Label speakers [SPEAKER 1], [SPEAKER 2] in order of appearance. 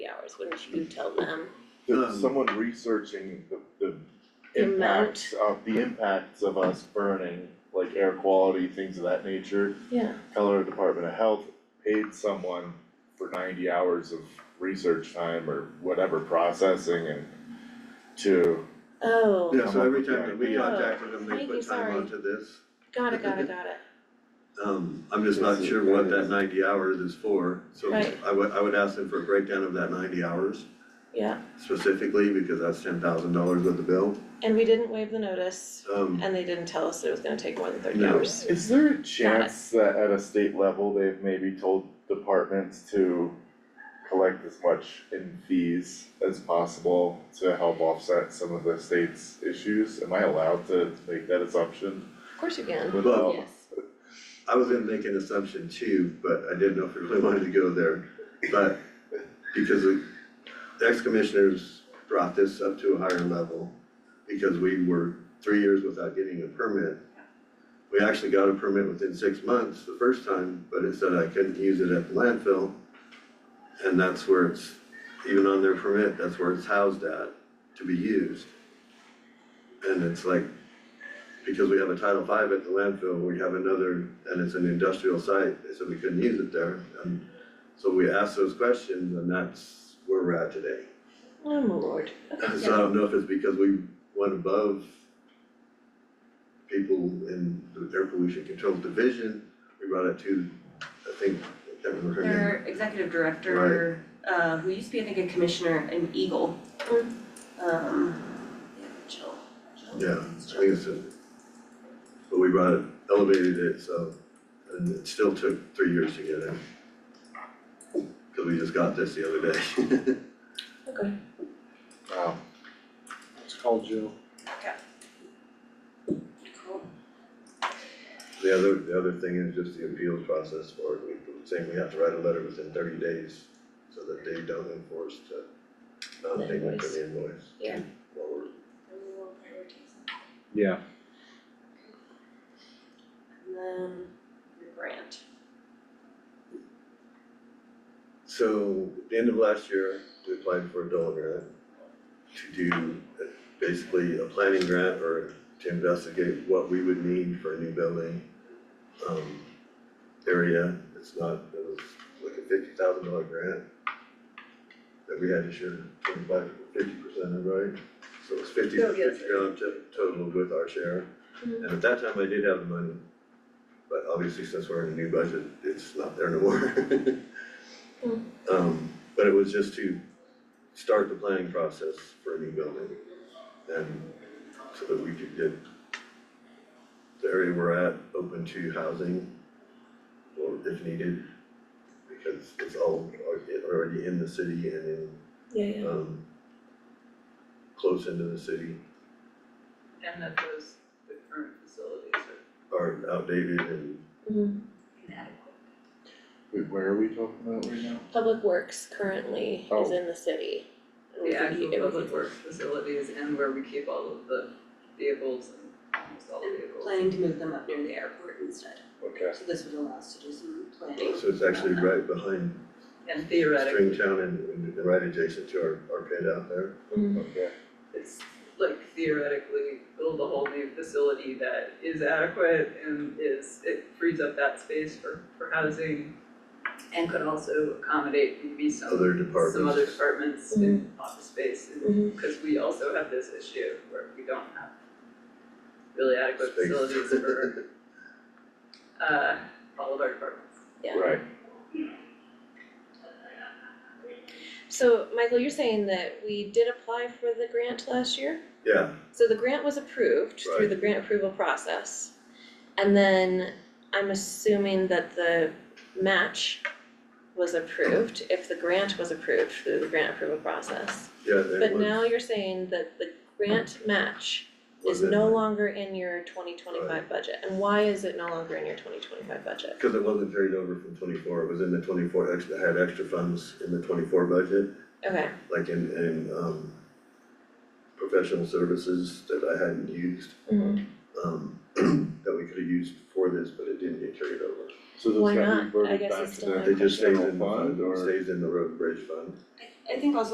[SPEAKER 1] hours, wouldn't you tell them?
[SPEAKER 2] There's
[SPEAKER 3] Um,
[SPEAKER 2] someone researching the the
[SPEAKER 1] The amount.
[SPEAKER 2] impacts of the impacts of us burning, like air quality, things of that nature.
[SPEAKER 1] Yeah.
[SPEAKER 2] Colorado Department of Health paid someone for ninety hours of research time or whatever processing and to,
[SPEAKER 1] Oh,
[SPEAKER 3] Yeah, so every time that we
[SPEAKER 1] Yeah.
[SPEAKER 3] contacted them, they
[SPEAKER 1] Thank you,
[SPEAKER 3] put time
[SPEAKER 1] sorry.
[SPEAKER 3] onto this.
[SPEAKER 1] got it, got it, got it.
[SPEAKER 3] Um, I'm just not sure what that ninety hours is for, so
[SPEAKER 1] Right.
[SPEAKER 3] I would, I would ask them for a breakdown of that ninety hours
[SPEAKER 1] Yeah,
[SPEAKER 3] specifically, because that's ten thousand dollars worth of bill.
[SPEAKER 1] and we didn't waive the notice
[SPEAKER 3] Um,
[SPEAKER 1] and they didn't tell us that it was gonna take more than thirty
[SPEAKER 3] No.
[SPEAKER 1] hours.
[SPEAKER 2] is there a chance that at a state level, they've maybe told departments to collect as much in fees as possible to help offset some of the state's issues? Am I allowed to make that assumption
[SPEAKER 1] Of course you can.
[SPEAKER 2] without? um,
[SPEAKER 4] Yes.
[SPEAKER 3] I was gonna make an assumption too, but I didn't know if we really wanted to go there, but because the ex-commissioners brought this up to a higher level, because we were three years without getting a permit. We actually got a permit within six months the first time, but it said I couldn't use it at the landfill. And that's where it's, even on their permit, that's where it's housed at, to be used. And it's like, because we have a Title V at the landfill, we have another, and it's an industrial site, they said we couldn't use it there. And so we asked those questions and that's where we're at today.
[SPEAKER 1] Oh, my lord.
[SPEAKER 3] So I don't know if it's because we went above people in the Air Pollution Control Division, we brought it to, I think, I can't remember her name.
[SPEAKER 4] Their executive director, uh, who used to be, I think, a commissioner in Eagle.
[SPEAKER 1] Mm.
[SPEAKER 4] Um, yeah, Jill, Jill.
[SPEAKER 3] Yeah, I think it's a, but we brought it, elevated it, so, and it still took three years to get in. Cause we just got this the other day.
[SPEAKER 1] Okay.
[SPEAKER 2] Wow.
[SPEAKER 5] Let's call Jill.
[SPEAKER 4] Cool.
[SPEAKER 3] The other, the other thing is just the appeals process for it, we, we're saying we have to write a letter within thirty days so that they don't enforce to not
[SPEAKER 1] The
[SPEAKER 3] payment for
[SPEAKER 1] invoice.
[SPEAKER 3] the invoice.
[SPEAKER 1] Yeah.
[SPEAKER 3] Well, we're
[SPEAKER 5] Yeah.
[SPEAKER 4] And then your grant.
[SPEAKER 3] So at the end of last year, we applied for a Dolan grant to do uh, basically a planning grant or to investigate what we would need for a new building um area. It's not, it was like a fifty thousand dollar grant that we had to share twenty-five, fifty percent of, right? So it was fifty,
[SPEAKER 4] Oh, yes.
[SPEAKER 3] fifty grand to- total with our share.
[SPEAKER 1] Mhm.
[SPEAKER 3] And at that time, I did have the money, but obviously since we're in a new budget, it's not there no more. Um, but it was just to start the planning process for a new building. And so that we could get the area we're at open to housing or if needed. Because it's all al- already in the city and
[SPEAKER 1] Yeah,
[SPEAKER 3] in,
[SPEAKER 1] yeah.
[SPEAKER 3] um, close into the city
[SPEAKER 6] And that those, the current facilities are
[SPEAKER 3] are outdated and
[SPEAKER 1] Mhm.
[SPEAKER 6] inadequate.
[SPEAKER 2] Wait, where are we talking about right now?
[SPEAKER 1] Public Works currently is
[SPEAKER 2] Oh.
[SPEAKER 1] in the city. and we
[SPEAKER 6] The
[SPEAKER 1] could u-
[SPEAKER 6] actual
[SPEAKER 1] it would
[SPEAKER 6] public
[SPEAKER 1] be-
[SPEAKER 6] works facilities and where we keep all of the vehicles and almost all the vehicles.
[SPEAKER 4] Planning to move them up near the airport instead,
[SPEAKER 2] Okay.
[SPEAKER 4] so this would allow us to do some planning.
[SPEAKER 3] so it's actually right behind
[SPEAKER 6] And theoretically,
[SPEAKER 3] Stringtown and, and right adjacent to our, our pit out there.
[SPEAKER 1] Mm.
[SPEAKER 2] Okay.
[SPEAKER 6] it's like theoretically build a whole new facility that is adequate and is, it frees up that space for, for housing and could also accommodate maybe some,
[SPEAKER 3] Other
[SPEAKER 6] some other
[SPEAKER 3] departments.
[SPEAKER 6] departments in office space and
[SPEAKER 1] Mhm.
[SPEAKER 6] Cause we also have this issue where we don't have really adequate
[SPEAKER 3] Space.
[SPEAKER 6] facilities for uh all of our departments.
[SPEAKER 1] Yeah.
[SPEAKER 2] Right,
[SPEAKER 1] So, Michael, you're saying that we did apply for the grant last year?
[SPEAKER 3] Yeah,
[SPEAKER 1] So the grant was approved through
[SPEAKER 3] Right.
[SPEAKER 1] the grant approval process. And then I'm assuming that the match was approved, if the grant was approved through the grant approval process.
[SPEAKER 3] Yeah, it was.
[SPEAKER 1] But now you're saying that the grant match is
[SPEAKER 3] was in
[SPEAKER 1] no
[SPEAKER 3] there.
[SPEAKER 1] longer in your twenty twenty-five budget, and why is it no longer in your twenty twenty-five budget?
[SPEAKER 3] Cause it wasn't carried over from twenty-four, it was in the twenty-four, extra, had extra funds in the twenty-four budget,
[SPEAKER 1] Okay,
[SPEAKER 3] like in, in, um, professional services that I hadn't used,
[SPEAKER 1] Mhm.
[SPEAKER 3] um, that we could have used for this, but it didn't get carried over.
[SPEAKER 2] so
[SPEAKER 1] Why
[SPEAKER 2] those got
[SPEAKER 1] not? I
[SPEAKER 2] reverted
[SPEAKER 1] guess
[SPEAKER 2] back
[SPEAKER 1] it's
[SPEAKER 2] to
[SPEAKER 1] still
[SPEAKER 2] the
[SPEAKER 1] in
[SPEAKER 3] It just stays
[SPEAKER 2] general
[SPEAKER 3] in the
[SPEAKER 2] fund
[SPEAKER 3] fund,
[SPEAKER 2] or?
[SPEAKER 3] stays in the road and bridge fund.
[SPEAKER 4] I I think also